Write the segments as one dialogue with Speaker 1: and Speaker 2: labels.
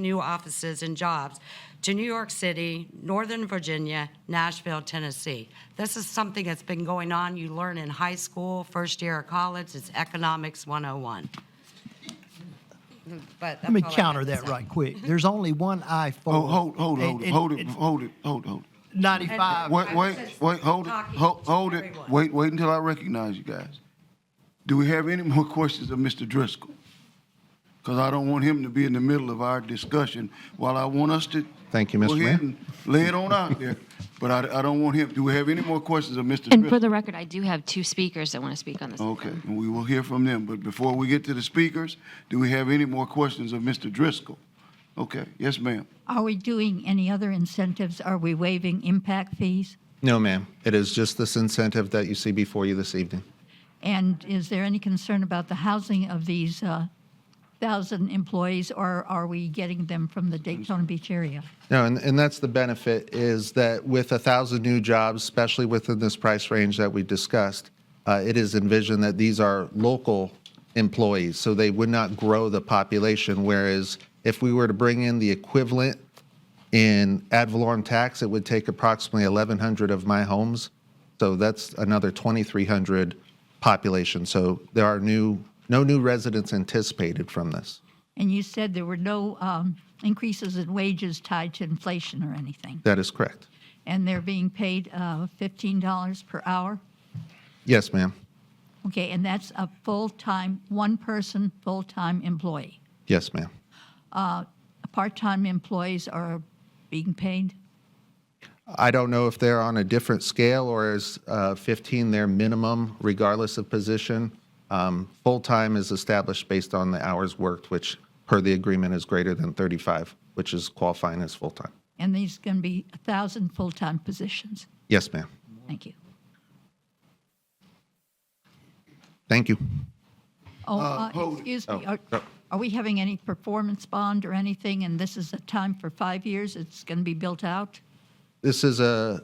Speaker 1: new offices and jobs to New York City, Northern Virginia, Nashville, Tennessee. This is something that's been going on. You learn in high school, first year of college, it's Economics 101. But
Speaker 2: Let me counter that right quick. There's only one I four.
Speaker 3: Oh, hold, hold,
Speaker 2: and-
Speaker 3: hold, it,
Speaker 2: and
Speaker 3: hold it,
Speaker 2: it's
Speaker 3: hold it, hold, hold.
Speaker 2: Ninety-five.
Speaker 3: Wait,
Speaker 1: I
Speaker 3: wait,
Speaker 1: was
Speaker 3: wait, hold it,
Speaker 1: talking
Speaker 3: hold,
Speaker 1: to
Speaker 3: hold it.
Speaker 1: everyone.
Speaker 3: Wait, wait until I recognize you guys. Do we have any more questions of Mr. Driscoll? Because I don't want him to be in the middle of our discussion while I want us to.
Speaker 4: Thank you,
Speaker 3: go
Speaker 4: Mr. Mayor.
Speaker 3: ahead and Lay it on out there, but I, I don't want him, do we have any more questions of Mr.
Speaker 5: And for
Speaker 3: Driscoll?
Speaker 5: the record, I do have two speakers that want to speak on this.
Speaker 3: Okay, and we will hear from them, but before we get to the speakers, do we have any more questions of Mr. Driscoll? Okay, yes, ma'am.
Speaker 6: Are we doing any other incentives? Are we waiving impact fees?
Speaker 4: No, ma'am. It is just this incentive that you see before you this evening.
Speaker 6: And is there any concern about the housing of these uh, 1,000 employees, or are we getting them from the Daytona Beach area?
Speaker 4: No, and, and that's the benefit is that with a thousand new jobs, especially within this price range that we discussed, uh, it is envisioned that these are local employees, so they would not grow the population. Whereas if we were to bring in the equivalent in ad valorem tax, it would take approximately 1,100 of my homes. So that's another 2,300 population. So there are new, no new residents anticipated from this.
Speaker 6: And you said there were no um, increases in wages tied to inflation or anything,
Speaker 4: That is correct.
Speaker 6: and they're being paid uh, $15 per hour?
Speaker 4: Yes, ma'am.
Speaker 6: Okay, and that's a full-time, one-person, full-time employee.
Speaker 4: Yes, ma'am.
Speaker 6: Part-time employees are being paid?
Speaker 4: I don't know if they're on a different scale or is uh, 15 their minimum, regardless of position. Um, Full time is established based on the hours worked, which per the agreement is greater than 35, which is qualifying as full time.
Speaker 6: And these going to be 1,000 full-time positions.
Speaker 4: Yes, ma'am.
Speaker 6: Thank you.
Speaker 4: Thank you.
Speaker 6: Oh, uh,
Speaker 3: hold it.
Speaker 6: excuse me,
Speaker 4: Oh,
Speaker 6: are
Speaker 4: no.
Speaker 6: are we having any performance bond or anything, and this is a time for five years, it's going to be built out?
Speaker 4: This is a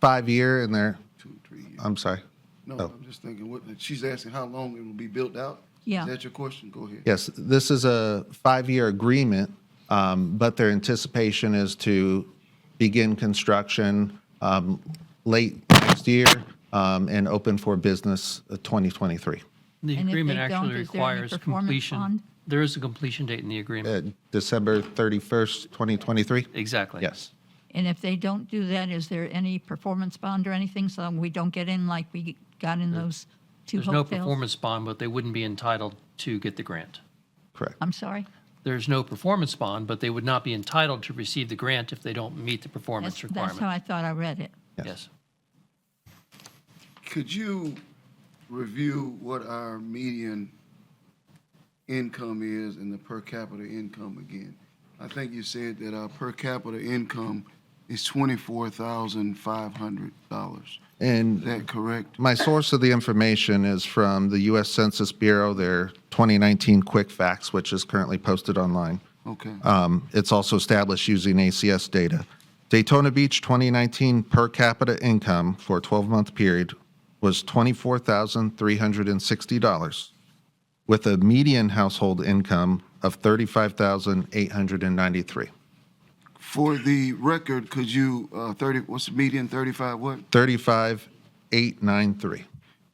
Speaker 4: five year and they're,
Speaker 3: Two, three, yeah.
Speaker 4: I'm sorry.
Speaker 3: No,
Speaker 4: Oh.
Speaker 3: I'm just thinking, what, she's asking how long it will be built out?
Speaker 6: Yeah.
Speaker 3: Is that your question? Go ahead.
Speaker 4: Yes, this is a five-year agreement, um, but their anticipation is to begin construction um, late next year um, and open for business uh, 2023.
Speaker 7: The
Speaker 6: And if they
Speaker 7: agreement
Speaker 6: don't,
Speaker 7: actually
Speaker 6: is there any
Speaker 7: requires
Speaker 6: performance bond?
Speaker 7: completion. There is a completion date in the agreement.
Speaker 4: Uh, December 31st, 2023?
Speaker 7: Exactly.
Speaker 4: Yes.
Speaker 6: And if they don't do that, is there any performance bond or anything, so we don't get in like we got in those two
Speaker 7: There's no
Speaker 6: hotels?
Speaker 7: performance bond, but they wouldn't be entitled to get the grant.
Speaker 4: Correct.
Speaker 6: I'm sorry?
Speaker 7: There's no performance bond, but they would not be entitled to receive the grant if they don't meet the
Speaker 6: That's
Speaker 7: performance
Speaker 6: that's how
Speaker 7: requirement.
Speaker 6: I thought I read it.
Speaker 7: Yes.
Speaker 3: Could you review what our median income is and the per capita income again? I think you said that our per capita income is twenty-four thousand five hundred dollars. Is
Speaker 4: And
Speaker 3: that correct?
Speaker 4: my source of the information is from the U.S. Census Bureau, their 2019 Quick Facts, which is currently posted online.
Speaker 3: Okay.
Speaker 4: Um, It's also established using ACS data. Daytona Beach 2019 per capita income for a 12-month period was $24,360, with a median household income of $35,893.
Speaker 3: For the record, could you, uh, thirty, what's the median, thirty-five what?
Speaker 4: $35,893.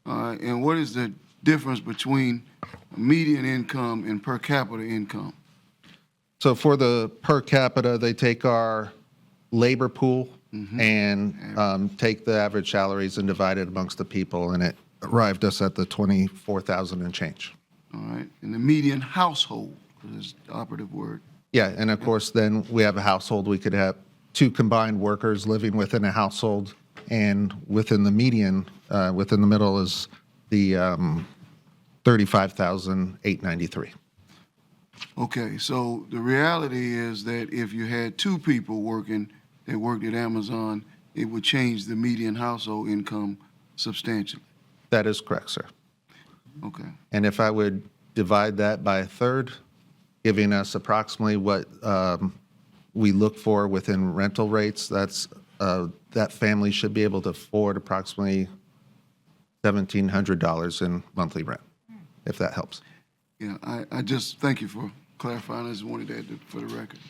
Speaker 3: All right, Uh, and what is the difference between median income and per capita income?
Speaker 4: So for the per capita, they take our labor pool and um, take the average salaries and divide it amongst the people, and it arrived us at the 24,000 and change.
Speaker 3: All right, and the median household is the operative word.
Speaker 4: Yeah, and of course, then we have a household, we could have two combined workers living within a household, and within the median, uh, within the middle is the um, 35,893.
Speaker 3: Okay, so the reality is that if you had two people working that worked at Amazon, it would change the median household income substantially.
Speaker 4: That is correct, sir.
Speaker 3: Okay,
Speaker 4: And if I would divide that by a third, giving us approximately what um, we look for within rental rates, that's, uh, that family should be able to afford approximately $1,700 in monthly rent, if that helps.
Speaker 3: yeah, I, I just, thank you for clarifying, I just wanted to add that for the record.